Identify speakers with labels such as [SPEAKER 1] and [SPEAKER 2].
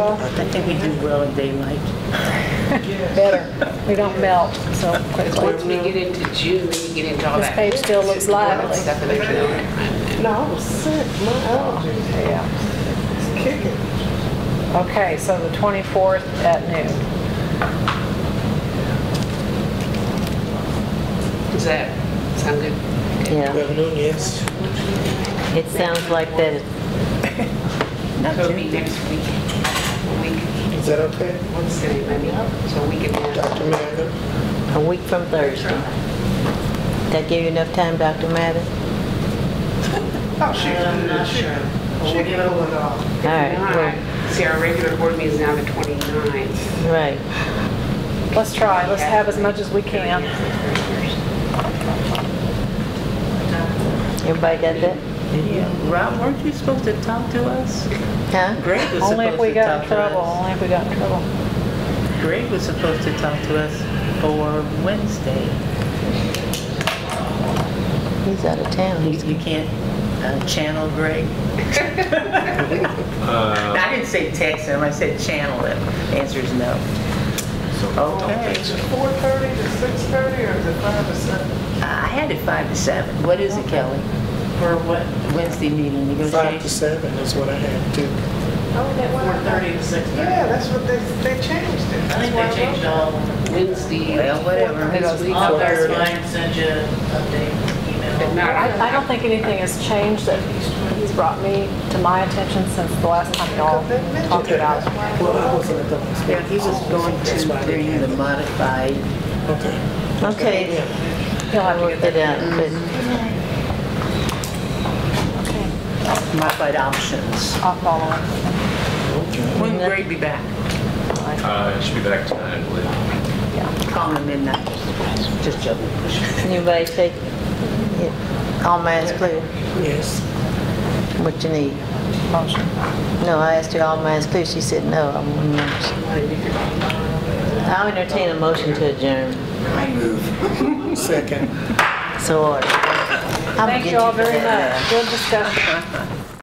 [SPEAKER 1] will.
[SPEAKER 2] I think we do well in daylight.
[SPEAKER 1] Better. We don't melt so
[SPEAKER 3] Once we
[SPEAKER 1] quickly.
[SPEAKER 3] get into June, we get into all
[SPEAKER 1] This
[SPEAKER 3] that.
[SPEAKER 1] page still looks lively.
[SPEAKER 3] Stuff that they're doing.
[SPEAKER 4] No, I was sick, my allergies
[SPEAKER 1] Yeah.
[SPEAKER 4] was kicking.
[SPEAKER 1] Okay, so the 24th at noon.
[SPEAKER 3] Does that sound good?
[SPEAKER 5] Yeah,
[SPEAKER 4] Afternoon, yes.
[SPEAKER 5] it sounds like that,
[SPEAKER 3] Could be next week, a week,
[SPEAKER 4] Is that okay,
[SPEAKER 3] what's the name, maybe, so we can,
[SPEAKER 4] Dr. Mather?
[SPEAKER 5] a week from Thursday. That give you enough time, Dr. Mather?
[SPEAKER 4] Oh, shoot.
[SPEAKER 3] uh,
[SPEAKER 4] I'm not sure. She can hold it off.
[SPEAKER 5] All right, well,
[SPEAKER 3] Alright, see, our regular board meeting is now the 29th.
[SPEAKER 5] right.
[SPEAKER 1] Let's try, let's have as much as we can.
[SPEAKER 5] Everybody got that?
[SPEAKER 2] Rob, weren't you supposed to talk to us?
[SPEAKER 5] Huh?
[SPEAKER 2] Greg was
[SPEAKER 1] Only if
[SPEAKER 2] supposed
[SPEAKER 1] we
[SPEAKER 2] to
[SPEAKER 1] got
[SPEAKER 2] talk
[SPEAKER 1] in
[SPEAKER 2] to
[SPEAKER 1] trouble,
[SPEAKER 2] us.
[SPEAKER 1] only if we got in trouble.
[SPEAKER 2] Greg was supposed to talk to us for Wednesday.
[SPEAKER 5] He's out of town.
[SPEAKER 2] You you can't uh, channel Greg? I didn't say text him, I said channel him. Answer is no. Okay.
[SPEAKER 4] Is it 4:30 to 6:30 or is it 5 to 7?
[SPEAKER 2] I had it five to seven. What is it, Kelly? For what? Wednesday meeting
[SPEAKER 4] 5 to
[SPEAKER 2] negotiations?
[SPEAKER 4] 7 is what I had too.
[SPEAKER 6] Four thirty to six thirty.
[SPEAKER 4] Yeah, that's what they, they changed it.
[SPEAKER 6] I
[SPEAKER 4] That's
[SPEAKER 6] think
[SPEAKER 4] why
[SPEAKER 6] they changed
[SPEAKER 4] wrote
[SPEAKER 6] all.
[SPEAKER 3] Wednesday.
[SPEAKER 2] Well, whatever.
[SPEAKER 3] This week.
[SPEAKER 6] All
[SPEAKER 4] Four
[SPEAKER 6] their
[SPEAKER 4] thirty.
[SPEAKER 6] clients send you an update
[SPEAKER 3] But
[SPEAKER 6] email.
[SPEAKER 3] not-
[SPEAKER 1] I I don't think anything has changed that he's brought me to my attention since the last time y'all
[SPEAKER 4] it.
[SPEAKER 1] talked about it.
[SPEAKER 4] Well, I wasn't at the
[SPEAKER 2] Yeah, he was going
[SPEAKER 4] That's why I
[SPEAKER 2] to
[SPEAKER 4] didn't
[SPEAKER 2] bring
[SPEAKER 4] have
[SPEAKER 2] the
[SPEAKER 4] it.
[SPEAKER 2] modified
[SPEAKER 4] Okay.
[SPEAKER 5] Okay,
[SPEAKER 4] Yeah.
[SPEAKER 1] He'll have
[SPEAKER 5] I'll
[SPEAKER 1] to
[SPEAKER 5] work
[SPEAKER 1] get
[SPEAKER 5] it
[SPEAKER 1] that.
[SPEAKER 5] out, but
[SPEAKER 2] modified options.
[SPEAKER 1] I'll follow him.
[SPEAKER 2] When will Greg be back?
[SPEAKER 7] Uh, it should be back tonight, I believe.
[SPEAKER 2] Call him midnight. Just joking.
[SPEAKER 5] anybody take, yeah, all minds clear,
[SPEAKER 4] Yes.
[SPEAKER 5] what you need? No, I asked her all minds clear, she said no. I'm one man. I'll entertain a motion to adjourn,
[SPEAKER 4] Second.
[SPEAKER 5] so ordered. I'll
[SPEAKER 1] Thank
[SPEAKER 5] get
[SPEAKER 1] you all
[SPEAKER 5] for
[SPEAKER 1] very
[SPEAKER 5] that,
[SPEAKER 1] much. Good discussion.